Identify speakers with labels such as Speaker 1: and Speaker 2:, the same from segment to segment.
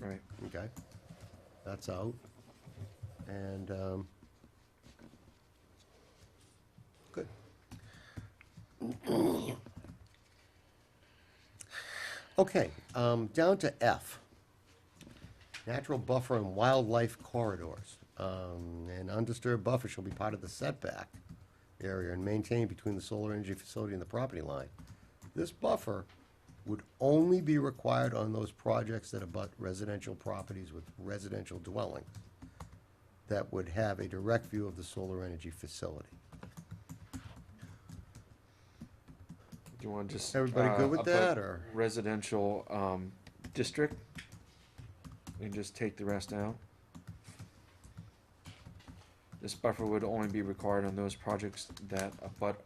Speaker 1: Right.
Speaker 2: Okay, that's out. And, um, good. Okay, um, down to F. Natural buffer and wildlife corridors. Um, an undisturbed buffer shall be part of the setback area and maintained between the solar energy facility and the property line. This buffer would only be required on those projects that abut residential properties with residential dwellings that would have a direct view of the solar energy facility.
Speaker 1: Do you want to just?
Speaker 2: Everybody
Speaker 1: uh,
Speaker 2: good with
Speaker 1: up a
Speaker 2: that, or?
Speaker 1: Residential, um, district? And just take the rest out? This buffer would only be required on those projects that abut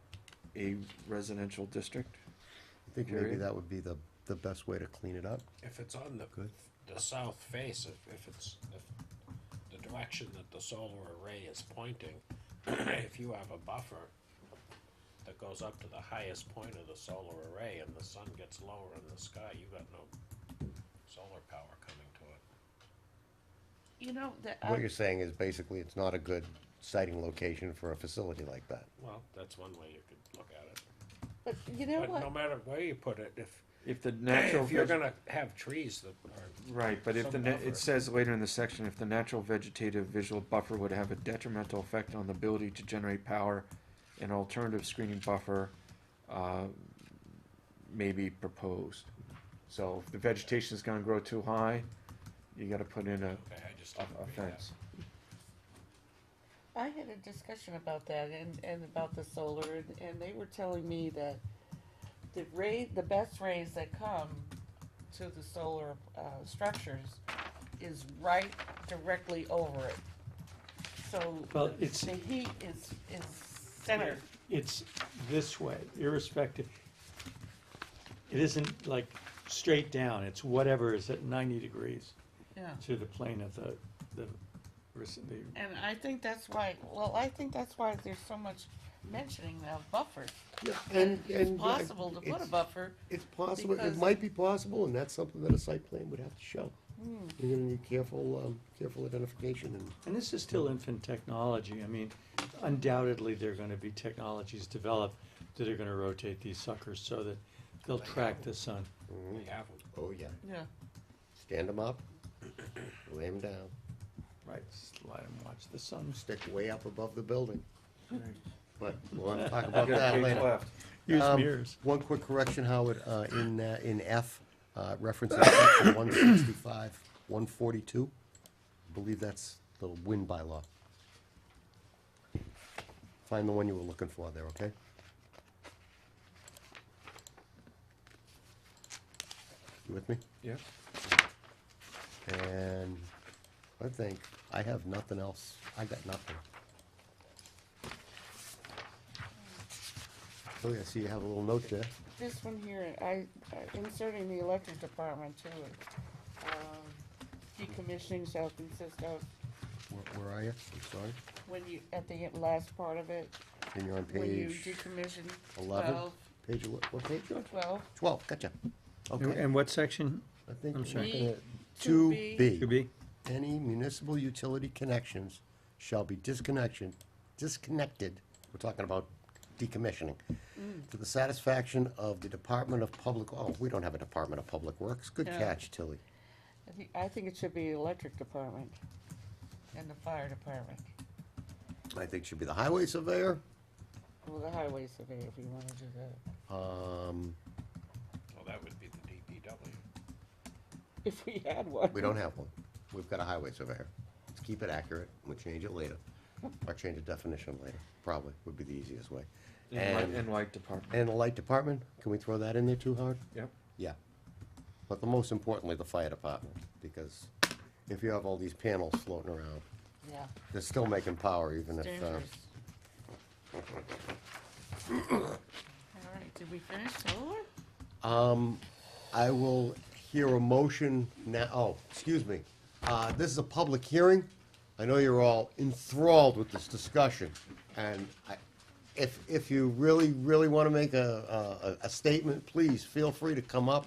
Speaker 1: a residential district?
Speaker 2: I think maybe
Speaker 1: Period.
Speaker 2: that would be the, the best way to clean it up.
Speaker 3: If it's on
Speaker 2: Good.
Speaker 3: the, the south face, if, if it's, if the direction that the solar array is pointing, if you have a buffer that goes up to the highest point of the solar array and the sun gets lower in the sky, you got no solar power coming to it.
Speaker 4: You know, that,
Speaker 2: What you're saying is basically it's not a good siting location for a facility like that.
Speaker 3: Well, that's one way you could look at it.
Speaker 4: but you know
Speaker 3: But no
Speaker 4: what?
Speaker 3: matter where you put it, if,
Speaker 1: If the natural.
Speaker 3: if you're
Speaker 1: veg-
Speaker 3: gonna have trees that are,
Speaker 1: Right, but if the,
Speaker 3: Some
Speaker 1: na-
Speaker 3: buffer.
Speaker 1: it says later in the section, if the natural vegetative visual buffer would have a detrimental effect on the ability to generate power, an alternative screening buffer, uh, may be proposed. So if the vegetation's gonna grow too high, you gotta put in a,
Speaker 3: okay, I just
Speaker 1: a
Speaker 3: don't
Speaker 1: a
Speaker 3: read that.
Speaker 1: fence.
Speaker 4: I had a discussion about that and, and about the solar, and, and they were telling me that the ray, the best rays that come to the solar, uh, structures is right directly over it. So
Speaker 5: Well,
Speaker 4: the
Speaker 5: it's-
Speaker 4: heat is, is centered.
Speaker 5: It's this way, irrespective. It isn't like straight down, it's whatever is at ninety degrees
Speaker 4: Yeah.
Speaker 5: to the plane of the, the, res- the-
Speaker 4: And I think that's why, well, I think that's why there's so much mentioning of buffers.
Speaker 2: And,
Speaker 4: It's
Speaker 2: and. I-
Speaker 4: possible to put a
Speaker 2: it's-
Speaker 4: buffer.
Speaker 2: It's possible, it
Speaker 4: because-
Speaker 2: might be possible, and that's something that a site plan would have to show.
Speaker 4: Hmm.
Speaker 2: You're gonna need careful, um, careful identification and
Speaker 5: and this is still infant technology, I mean, undoubtedly, there are gonna be technologies developed that are gonna rotate these suckers so that they'll track the sun.
Speaker 3: They have them.
Speaker 2: Oh, yeah.
Speaker 4: Yeah.
Speaker 2: Stand them up, lay them down,
Speaker 5: Right, slide and watch the sun.
Speaker 2: stick way up above the building. But we'll have to talk
Speaker 1: You got
Speaker 2: about
Speaker 1: a
Speaker 2: that
Speaker 1: page
Speaker 2: later.
Speaker 1: left.
Speaker 5: Use
Speaker 2: Um,
Speaker 5: mirrors.
Speaker 2: One quick correction, Howard, uh, in, uh, in F, uh, references section one sixty-five, one forty-two. Believe that's the wind bylaw. Find the one you were looking for there, okay? You with me?
Speaker 1: Yeah,
Speaker 2: And I think I have nothing else. I got nothing. Oh, yeah, see, you have a little note there.
Speaker 4: This one here, I, I- inserting the electric department too. it. Um, Decommissioning shall consist of,
Speaker 2: Where, where are you? I'm sorry.
Speaker 4: when you, at the last part of it,
Speaker 2: And you're on
Speaker 4: when you
Speaker 2: page
Speaker 4: decommission
Speaker 2: 11?
Speaker 4: twelve,
Speaker 2: Page, ele- what page? George?
Speaker 4: twelve,
Speaker 2: Twelve, gotcha. Okay.
Speaker 5: And what section
Speaker 2: I think
Speaker 5: I'm
Speaker 2: we're
Speaker 5: sorry.
Speaker 2: gonna, two
Speaker 4: two B.
Speaker 5: could
Speaker 2: B.
Speaker 5: be?
Speaker 2: Any municipal utility connections shall be disconnection, disconnected, we're talking about decommissioning,
Speaker 4: Mm.
Speaker 2: to the satisfaction of the Department of Public, oh, we don't have a Department of Public Works. Good
Speaker 4: No.
Speaker 2: catch, Tilly.
Speaker 4: I think, I think it should be the electric department and the fire department.
Speaker 2: I think should be the highway surveyor.
Speaker 4: Well, the highway surveyor, if you wanna do that.
Speaker 2: Um,
Speaker 3: Well, that would be the DPW.
Speaker 4: If we had one.
Speaker 2: we don't have one. We've got a highway surveyor. Let's keep it accurate. We'll change it later. Or change the definition later, probably would be the easiest way.
Speaker 1: and light,
Speaker 2: And,
Speaker 1: and light department,
Speaker 2: and the light department, can we throw that in there too hard?
Speaker 1: yep.
Speaker 2: Yeah. But the most importantly, the fire department, because if you have all these panels floating around,
Speaker 4: Yeah,
Speaker 2: they're still making power even if, uh,
Speaker 4: dangerous. All right, did we finish solar?
Speaker 2: Um, I will hear a motion now, oh, excuse me. Uh, this is a public hearing. I know you're all enthralled with this discussion, and I, if, if you really, really wanna make a, a, a statement, please feel free to come up